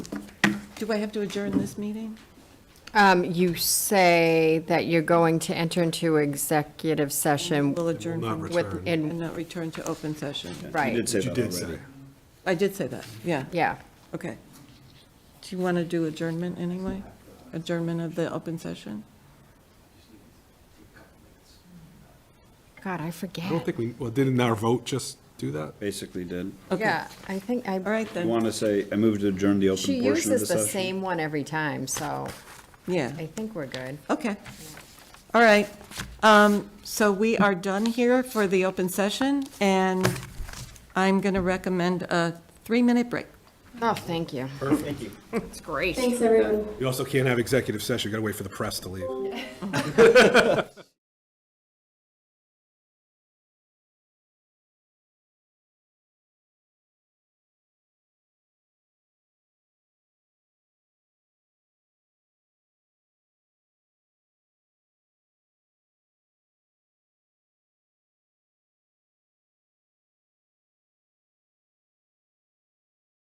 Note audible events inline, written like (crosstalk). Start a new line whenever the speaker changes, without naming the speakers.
Do I have to adjourn this meeting?
Um, you say that you're going to enter into executive session
We'll adjourn
not
from-
return.
with,
and
in,
not return to open session.
You
right,
did say
You
that
did say
already.
I did say that, yeah,
yeah.
okay. Do you want to do adjournment anyway? Adjournment of the open session?
God, I
I
forget.
don't think we, well, didn't our vote just do that?
Basically did.
Okay.
Yeah, I think I.
All right
You
then,
want to say, I moved to adjourn the
She
open portion of the
uses the
session?
same one every time, so
yeah,
I think we're good.
okay. All right, um, so we are done here for the open session, and I'm going to recommend a three-minute break.
Oh, thank you. Thank you. (laughs) It's great.
Thanks, everyone.
You also can't have executive session, you gotta wait for the press to leave.